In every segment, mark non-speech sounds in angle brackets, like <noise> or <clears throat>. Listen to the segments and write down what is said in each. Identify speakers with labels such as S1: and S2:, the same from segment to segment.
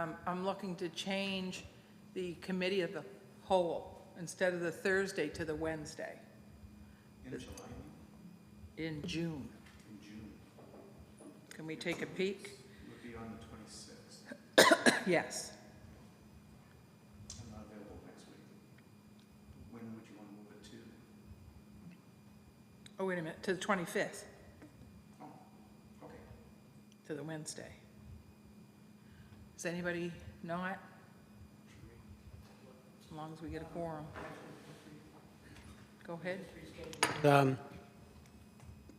S1: Um, I'm looking to change the committee of the whole, instead of the Thursday to the Wednesday
S2: In July,
S1: in June.
S2: in June,
S1: Can we take a peek?
S2: would be on the twenty-sixth.
S1: Yes.
S2: I'm not available next week. When would you want to move it to?
S1: Oh, wait a minute, to the 25th,
S2: Oh, okay.
S1: to the Wednesday. Is anybody not? As long as we get a quorum. Go ahead.
S3: um,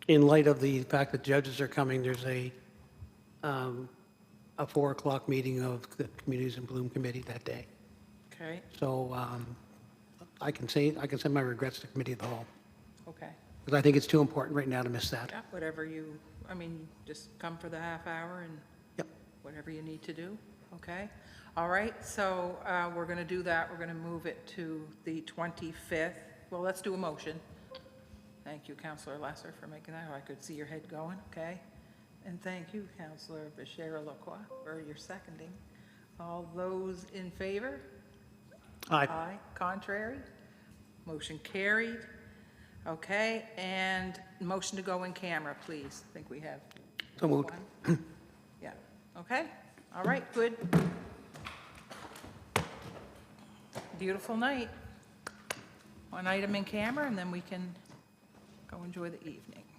S3: in light of the fact that judges are coming, there's a, um, a 4 o'clock meeting of the Communities in Bloom Committee that day.
S1: Okay,
S3: So um, I can say, I can send my regrets to Committee of the Whole,
S1: okay.
S3: because I think it's too important right now to miss that.
S1: Yeah, whatever you, I mean, just come for the half hour and
S3: Yep.
S1: whatever you need to do, okay? All right, so uh, we're going to do that, we're going to move it to the 25th. Well, let's do a motion. Thank you, Counselor Lesser, for making that, I could see your head going, okay? And thank you, Counselor Bashir Lacroix, for your seconding. All those in favor?
S3: Aye.
S1: Aye, contrary? Motion carried. Okay, and motion to go in camera, please. I think we have
S3: So moved.
S1: one. <clears throat> Yeah, okay, all right, good. Beautiful night. One item in camera, and then we can go enjoy the evening.